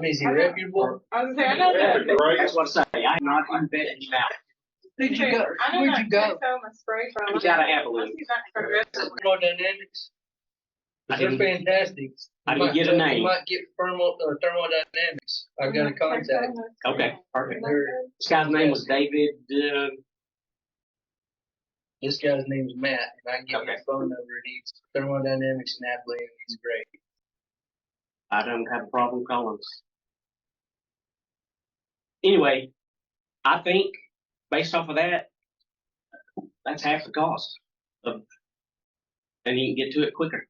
I mean, is he reputable? I was saying, I know that. That's what I'm saying, I'm not embedded now. Where'd you go? I know Where'd that you go? Texoma spray from. You gotta have a Once little. he's not progressive. Thermodynamics. I They're didn't- fantastic. I didn't get a You name. Might get thermal, or thermodynamics. I got a contact. Texoma spray. Okay, perfect. They're- This guy's name was David, uh, This guy's name's Matt, and I can give you Okay. his phone number, and he's thermodynamics and Abilene, and he's great. I don't have a problem calling. Anyway, I think based off of that, that's half the cost of, and you can get to it quicker.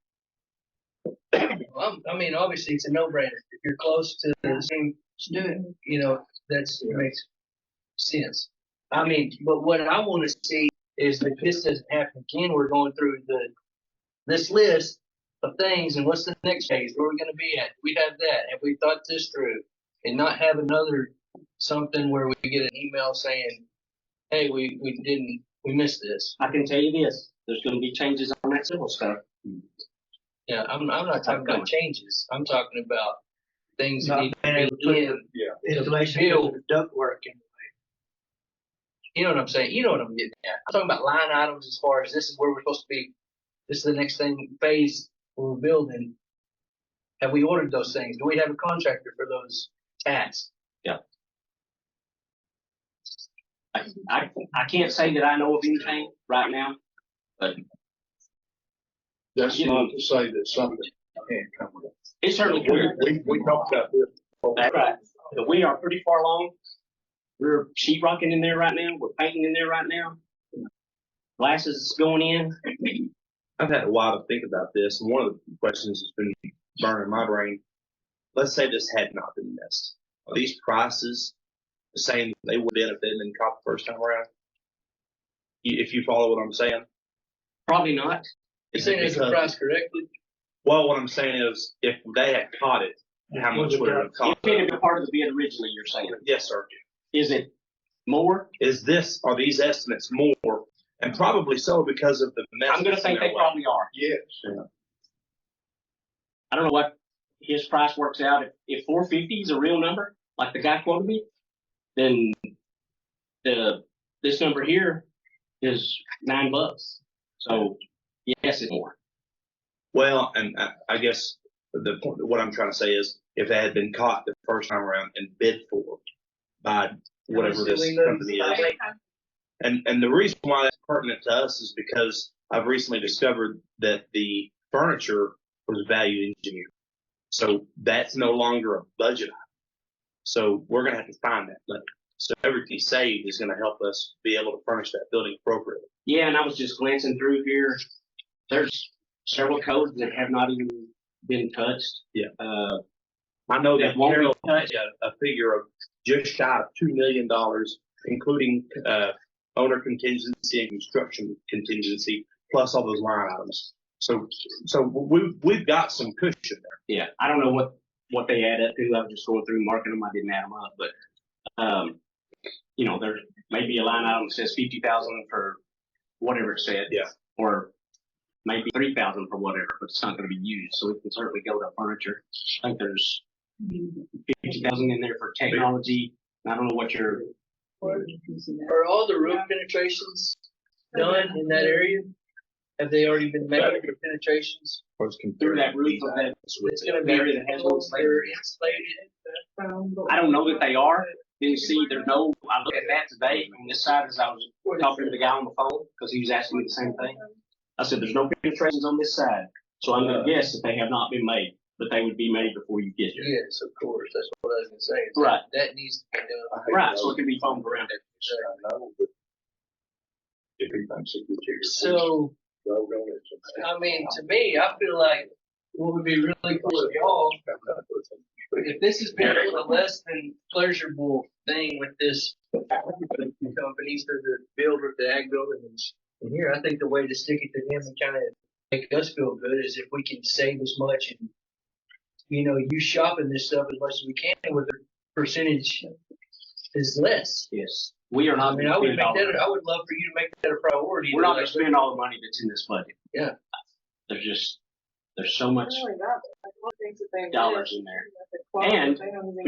Well, I'm- I mean, obviously, it's a no-brainer. If you're close to the same student, you know, that's makes sense. I mean, but what I want to see is that this doesn't happen again. We're going through the this list of things, and what's the next phase? Where are we going to be at? We have that. Have we thought this through? And not have another something where we get an email saying, "Hey, we we didn't we missed this." I can tell you this, there's gonna be changes on that civil stuff. Yeah, I'm I'm not talking about changes. I'm talking about things that need And to it be in. put the insulation into the ductwork and You know what I'm saying? You know what I'm getting at. I'm talking about line items as far as this is where we're supposed to be. This is the next thing phase we're building. Have we ordered those things? Do we have a contractor for those tasks? I, I, I can't say that I know of anything right now. That's not to say that something can't come with it. It's certainly We, clear, we, we talked about this. that's right, but we are pretty far along. We're sheet rocking in there right now, we're painting in there right now. Glasses is going in, I've had a while to think about this, and one of the questions that's been burning my brain. Let's say this had not been missed. Are these prices the same they would have been if they'd been caught the first time around? You- If you follow what I'm saying? probably not. You Is saying it is the because- price correctly? Well, what I'm saying is, if they had caught it, how much would it have If cost? it had been part of the bid originally, you're saying, Yes, sir. is it more? Is this, are these estimates more? And probably so because of the mess. I'm gonna think they probably are. Yes. I don't know what his price works out. If, if four fifty is a real number, like the guy quoted me, then the, this number here is nine bucks. So, yes, it's more. Well, and I, I guess the point, what I'm trying to say is, if they had been caught the first time around and bid for by whatever this company is, and and the reason why that's pertinent to us is because I've recently discovered that the furniture was value engineered, so that's no longer a budget item. So we're gonna have to find that money. So everything saved is gonna help us be able to furnish that building appropriately. Yeah, and I was just glancing through here. There's several codes that have not even been touched. Yeah. Uh, I know that that won't be Carol touched. a, a figure of just shy of two million dollars, including uh, owner contingency and construction contingency, plus all those line items. So, so we we've got some cushion there. yeah, I don't know what, what they add up to. I was just going through marking them. I didn't add them up, but, um, you know, there may be a line item that says fifty thousand for whatever it said. Yeah. Or maybe three thousand for whatever, but it's not gonna be used, so it can certainly go to furniture. I think there's fifty thousand in there for technology. I don't know what your, Are all the roof penetrations done in that area? Have they already been made for penetrations? through that roof of that It's gonna be, area that has no slavery. they're insulated. I don't know that they are. Then see, there's no, I look at that today on this side as I was talking to the guy on the phone, because he was asking me the same thing. I said, there's no penetrations on this side, so I'm gonna guess that they have not been made, but they would be made before you get here. Yes, of course, that's what I was gonna say. is Right, That needs to be done. right, so it can be foamed around. So, I mean, to me, I feel like what would be really cool if y'all, if this has been a little less than pleasurable thing with this companies through the builder, the ag building and sh- and here, I think the way to stick it to them and kind of make us feel good is if we can save as much and, you know, you shopping this stuff as much as we can with the percentage is less. Yes, we are I not mean, gonna I would spend all, make that, the- I would love for you to make that a priority. we're not gonna spend all the money that's in this budget. Yeah. There's just, there's so much things that they. dollars in there. Quality, And they don't even-